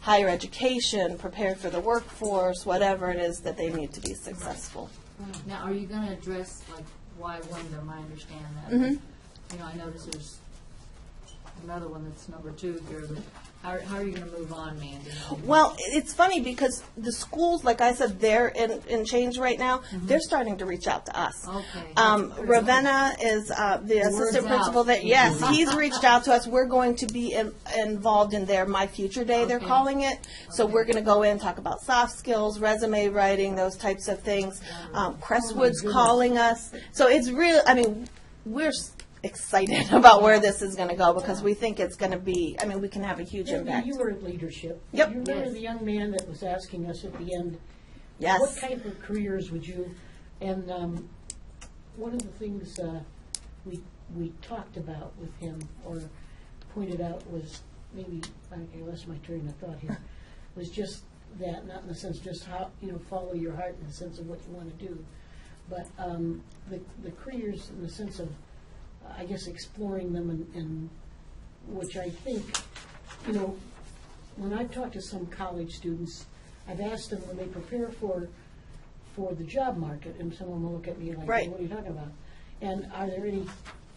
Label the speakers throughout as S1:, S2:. S1: higher education, prepared for the workforce, whatever it is that they need to be successful.
S2: Now, are you going to address, like, why Wyndham, I understand that.
S1: Mm-hmm.
S2: You know, I notice there's another one that's number two here, but how, how are you going to move on, Mandy?
S1: Well, i- it's funny because the schools, like I said, they're in, in change right now. They're starting to reach out to us.
S2: Okay.
S1: Um, Ravenna is uh, the assistant
S2: out.
S1: principal there. Yes, he's reached out to us. We're going to be in, involved in their My Future Day, they're
S2: Okay.
S1: calling it. So we're going to go in, talk about soft skills, resume writing, those types of things. Um, Crestwood's calling us. So it's real, I mean, we're s- excited about where this is going to go because we think it's going to be, I mean, we can have a huge impact.
S3: You were in leadership.
S1: Yep.
S3: You remember
S2: Yes.
S3: the young man that was asking us at the end?
S1: Yes.
S3: What type of careers would you, and um, one of the things uh, we, we talked about with him or pointed out was maybe, I I lost my train of thought here, was just that, not in the sense just how, you know, follow your heart in the sense of what you want to do, but um, the, the careers in the sense of, I guess, exploring them and, and which I think, you know, when I've talked to some college students, I've asked them when they prepare for, for the job market, and someone will look at me like,
S1: Right.
S3: what are you talking about? And are there any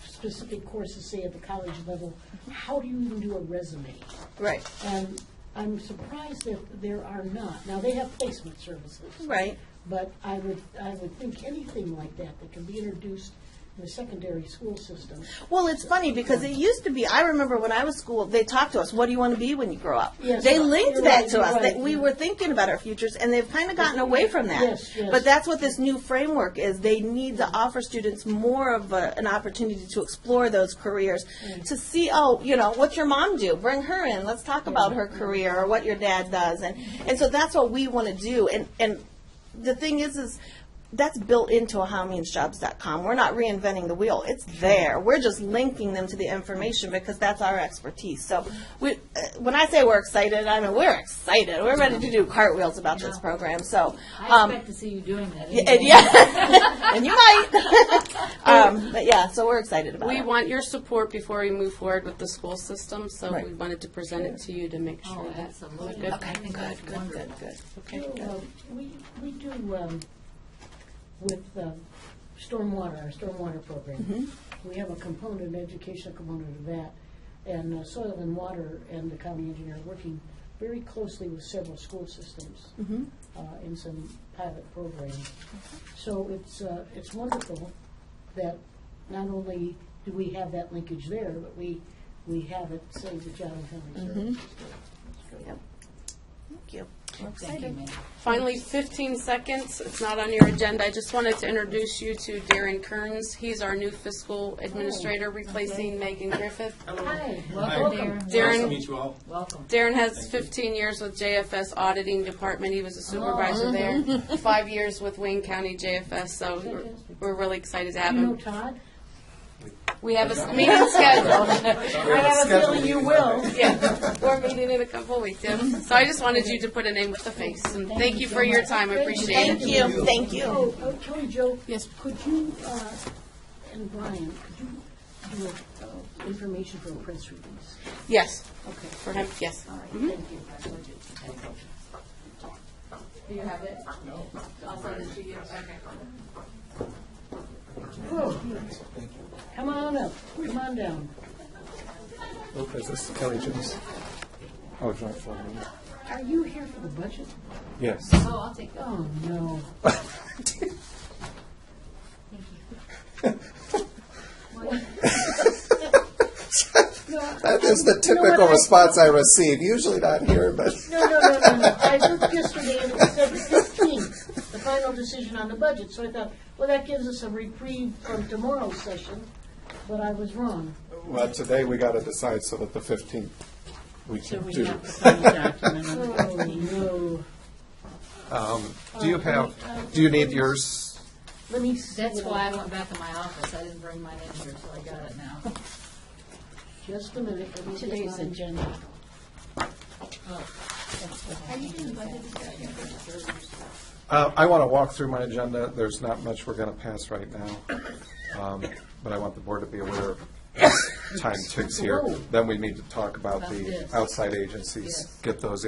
S3: specific courses, say at the college level, how do you even do a resume?
S1: Right,
S3: And I'm surprised that there are not. Now, they have placement services.
S1: right.
S3: But I would, I would think anything like that that can be introduced in the secondary school system.
S1: Well, it's funny because it used to be. I remember when I was school, they talked to us. What do you want to be when you grow up?
S3: Yes,
S1: they
S3: you're
S1: linked
S3: right,
S1: that to
S3: you're
S1: us. That
S3: right.
S1: we were thinking about our futures, and they've kind of gotten away from that.
S3: Yes, yes.
S1: But that's what this new framework is. They need to offer students more of a, an opportunity to explore those careers,
S2: Mm-hmm.
S1: to see. Oh, you know, what's your mom do? Bring her in. Let's talk about her career or what your dad does, and and so that's what we want to do. And and the thing is, is that's built into howmeansjobs.com. We're not reinventing the wheel. It's there. We're just linking them to the information because that's our expertise. So we, uh, when I say we're excited, I mean we're excited. We're ready to do cartwheels about this program. So,
S2: I
S1: um,
S2: expect to see you doing that.
S1: and yeah, and you might. um, but yeah, so we're excited about
S4: We
S1: it.
S4: want your support before we move forward with the school system, so
S1: Right.
S4: we wanted to present it to you to make sure
S2: Oh,
S4: that.
S2: absolutely.
S4: Okay,
S2: I think that's wonderful.
S1: good.
S3: You know, um, We, we do, um, with um, stormwater, our stormwater program, we have a component, an educational component of that, and uh, soil and water and the county engineer are working very closely with several school systems uh, in some pilot programs. So it's, uh, it's wonderful that not only do we have that linkage there, but we, we have it, say, the Job and Family Services.
S1: Yep. Thank you.
S2: Thank you, Mandy.
S4: Finally, 15 seconds, it's not on your agenda, I just wanted to introduce you to Darren Kearns. He's our new fiscal administrator replacing Megan Griffith.
S3: Hi,
S2: Welcome,
S3: welcome.
S2: Darren.
S4: Darren.
S5: Nice Oh, to meet you all.
S2: Welcome.
S4: Darren has 15 years with JFS Auditing Department. He was a supervisor there. Five years with Wayne County JFS, so we're- we're really excited to have
S3: You know
S4: him.
S3: Todd?
S4: We have a s- meeting scheduled.
S5: I have a feeling you will.
S4: Yeah, we're meeting in a couple of weeks. yeah. So I just wanted you to put a name with a face, and thank you for your time. I appreciate it.
S1: Thank you. Thank you.
S3: Oh, oh, Tony, Joe?
S4: Yes.
S3: Could you, uh, and Brian, could you do a, uh, information for a press release?
S4: Yes,
S3: Okay,
S4: for him, yes.
S3: all right, thank you.
S2: Do you have it? No. I'll send it to you. Okay.
S3: Whoa. Come on up, come on down.
S6: Lopez, this is Kelly Jones. Oh, it's not for me.
S3: Are you here for the budget?
S6: Yes.
S2: Oh, I'll take that.
S3: Oh, no.
S6: That is the typical
S3: I-
S6: response I receive. Usually not here, but
S3: No, no, no, no, no. I looked yesterday and it said fifteen, the final decision on the budget, so I thought, well, that gives us a reprieve from tomorrow's session, but I was wrong.
S6: well, today we got to decide so that the 15th we can do.
S3: Oh, no.
S6: do you have? Do you need yours?
S3: Let me. see
S2: That's
S3: what I-
S2: why I went back to my office. I didn't bring mine in here, so I got it now.
S3: Just a minute. let me get my-
S2: agenda.
S6: Uh, I want to walk through my agenda. There's not much we're going to pass right now, um, but I want the board to be aware. of
S3: Oh.
S6: Time ticks here. Then we need to talk about the outside agencies. Get those